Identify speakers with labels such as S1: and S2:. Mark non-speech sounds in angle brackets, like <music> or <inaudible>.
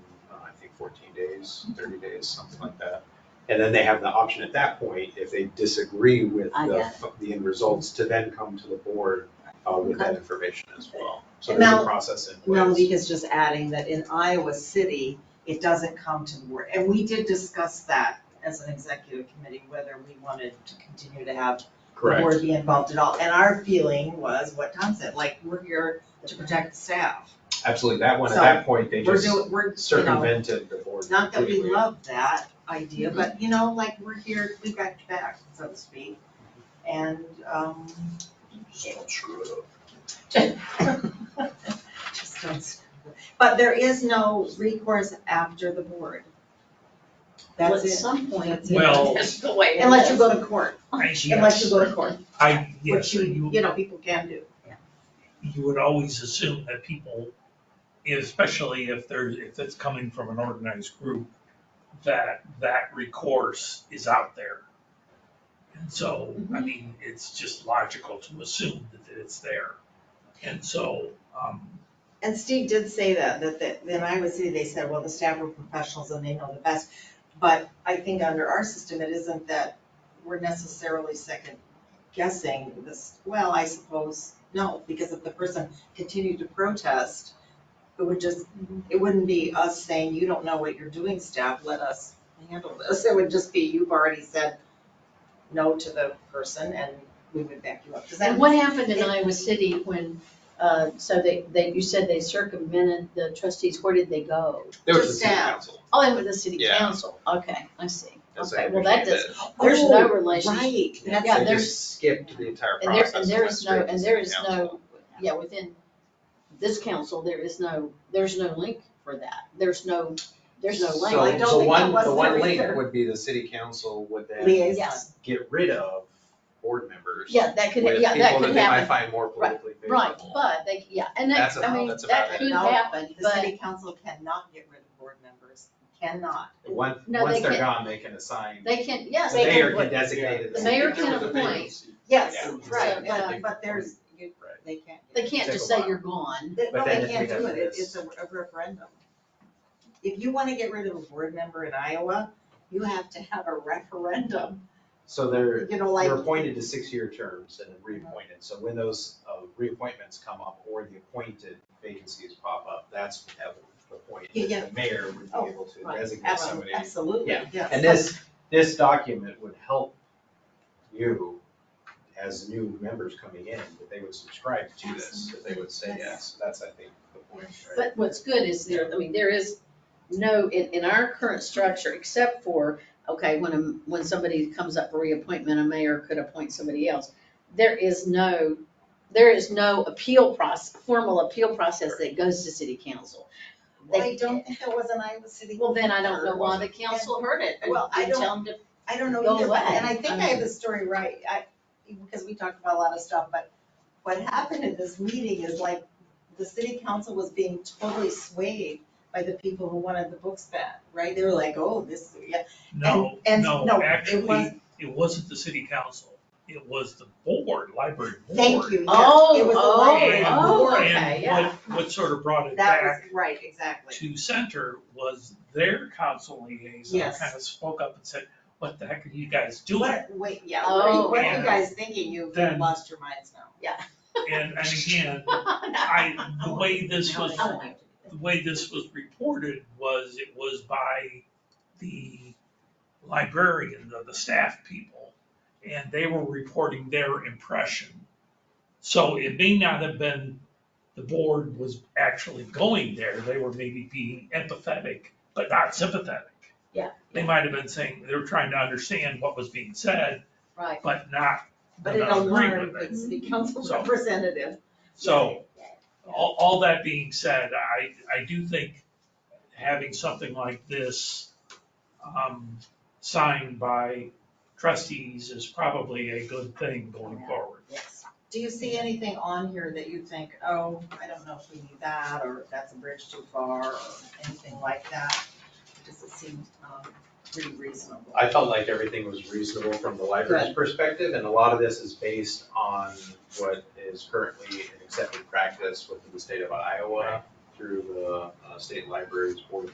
S1: uh, fourteen days, thirty days, something like that. And then they have the option at that point, if they disagree with
S2: I
S1: the,
S2: got
S1: the end results, to then come to the board uh, with that information as well. So
S2: And
S1: there's a
S2: Mel-
S1: process in place.
S2: Melody is just adding that in Iowa City, it doesn't come to the board. And we did discuss that as an executive committee, whether we wanted to continue to have the
S1: Correct.
S2: board be involved at all. And our feeling was what Tom said, like, we're here to protect the staff.
S1: Absolutely. That one, at
S2: So,
S1: that point, they
S2: We're
S1: just
S2: doing, we're, you know,
S1: circumvented the board.
S2: not that we
S1: completely.
S2: love that idea,
S3: Mm-hmm.
S2: but you know, like, we're here, we got your back, so to speak. And, um,
S1: Just don't screw it
S2: <laughs>
S1: up.
S2: just don't, but there is no recourse after the board.
S4: Well,
S2: That's
S4: at
S2: it.
S4: some point.
S2: That's
S1: Oh.
S2: it.
S3: Well-
S4: That's the way it
S2: Unless you
S4: is.
S2: go to court,
S3: I,
S2: unless you
S3: yes,
S2: go to court,
S3: I, yes,
S2: which you,
S3: you,
S2: you know, people can do.
S3: you would always assume that people, especially if there's, if it's coming from an organized group, that, that recourse is out there. And so, I
S2: Mm-hmm.
S3: mean, it's just logical to assume that it's there. And so, um,
S2: And Steve did say that, that, that, then I would say, they said, well, the staff are professionals and they know the best. But I think under our system, it isn't that we're necessarily second guessing this, well, I suppose, no, because if the person continued to protest, it would just,
S4: Mm-hmm.
S2: it wouldn't be us saying, you don't know what you're doing, staff, let us handle this. It would just be, you've already said no to the person and we would back you up. Does that
S4: And what happened in Iowa City when, uh, so they, they, you said they circumvented the trustees, where did they go?
S1: There was
S2: Just
S1: a city
S2: staff.
S1: council.
S4: Oh, they went to the city
S1: Yeah.
S4: council, okay, I see.
S1: as I
S4: Okay, well, that
S1: understand it.
S4: does, there's no
S2: Oh,
S4: relationship.
S2: Right, that's
S4: Yeah,
S1: They
S4: there's-
S1: just skipped the entire
S4: And there,
S1: process.
S4: and there
S1: went
S4: is
S1: straight
S4: no,
S1: to
S4: and there
S1: city
S4: is
S1: council.
S4: no, yeah, within this council, there is no, there's no link for that. There's no, there's no
S1: So
S2: I don't
S4: link.
S1: the
S2: think that
S1: one,
S2: was
S1: the one
S2: there
S1: link
S2: either.
S1: would be the city council would then
S2: liaison.
S4: Yes.
S1: get rid of board members.
S4: Yeah, that could,
S1: with
S4: yeah, that
S1: people
S4: could
S1: that they might
S4: happen,
S1: find more
S4: Right,
S1: politically favorable.
S4: right, but they, yeah, and
S1: That's
S4: that,
S1: about-
S4: I mean,
S1: that's about
S4: that
S1: it.
S4: could
S2: No,
S4: happen,
S2: The
S4: but,
S2: city council cannot get rid of board members, cannot.
S1: Once,
S4: No,
S1: once
S4: they
S1: they're
S4: can-
S1: gone, they can assign, the
S4: they can, yes, they
S1: mayor
S4: can,
S1: can
S4: but
S1: designate. it
S4: The
S1: as-
S4: mayor can
S1: to the mayor.
S4: appoint.
S2: Yes,
S1: Yeah. uh,
S2: right,
S4: Yeah.
S2: but, but there's, you- they can't.
S4: they can't
S1: Take
S4: just
S1: a
S4: say
S1: while.
S4: you're gone.
S2: They- No,
S1: But then
S2: they
S1: if
S2: can't
S1: we
S2: do
S1: have
S2: it, It-
S1: this-
S2: it's a a referendum. If you wanna get rid of a board member in Iowa, you have to have a referendum,
S1: So they're,
S2: you know, like.
S1: they're appointed to six-year terms and then reappointed, so when those, uh, reappointments come up or the appointed vacancies pop up, that's at the point that
S2: Yeah, yeah.
S1: the mayor would be
S2: Oh,
S1: able to
S2: right,
S1: designate somebody.
S2: Absolutely, absolutely,
S1: Yeah.
S2: yes.
S1: And this, this document would help you as new members coming in, that they would subscribe to this, that they would say yes, that's, I think, the point, right?
S4: But what's good is there, I mean, there is no, in, in our current structure, except for, okay, when, a- when somebody comes up for reappointment, a mayor could appoint somebody else. There is no, there is no appeal process, formal appeal process that goes to city council.
S2: Well, I don't think that was an Iowa City.
S4: Well, then I don't know why the council heard it.
S2: Well, I
S4: You tell them to-
S2: I don't know
S4: Go
S2: either, but, and I
S4: away.
S2: think
S4: I
S2: I have the story right, I, because we talked about a lot of stuff, but what happened at this meeting is like, the city council was being totally swayed by the people who wanted the books banned, right? They were like, oh, this, yeah,
S3: no,
S2: and
S3: no,
S2: no, it was-
S3: actually, it wasn't the city council. It was the board, library board.
S2: thank you, yes, it
S4: Oh,
S2: was the
S4: oh,
S2: library
S3: And-
S4: oh,
S2: board.
S4: okay,
S3: and
S4: yeah.
S3: what- What sort of brought it
S2: That
S3: back
S2: was, right, exactly,
S3: to center was their council liaison
S2: Yes.
S3: kind of spoke up and said, what the heck are you guys doing?
S2: what, wait, yeah, what are you,
S4: Oh,
S2: what are you
S3: yeah.
S2: guys thinking, you've
S3: Then-
S2: lost your minds now, yeah.
S3: And, and again, I, the way this was,
S4: No,
S3: the way this was reported was it was by the librarian, the, the staff people, and they were reporting their impression. So it may not have been, the board was actually going there, they were maybe being empathetic, but not sympathetic.
S4: Yeah.
S3: They might have been saying, they were trying to understand what was being said,
S4: Right.
S3: but not,
S2: But
S3: but
S2: it
S3: not agree
S2: alarmed
S3: with it.
S2: the city council
S3: So-
S2: representative.
S3: So, all, all that being said, I, I do think having something like this, um, signed by trustees is probably a good thing going forward.
S4: Yes.
S2: Do you see anything on here that you think, oh, I don't know if we need that, or that's a bridge too far, or anything like that? Does it seem, um, pretty reasonable?
S1: I felt like everything was reasonable from the library's perspective, and a lot of this is based on what is currently an accepted practice within the state of Iowa through the uh, state libraries board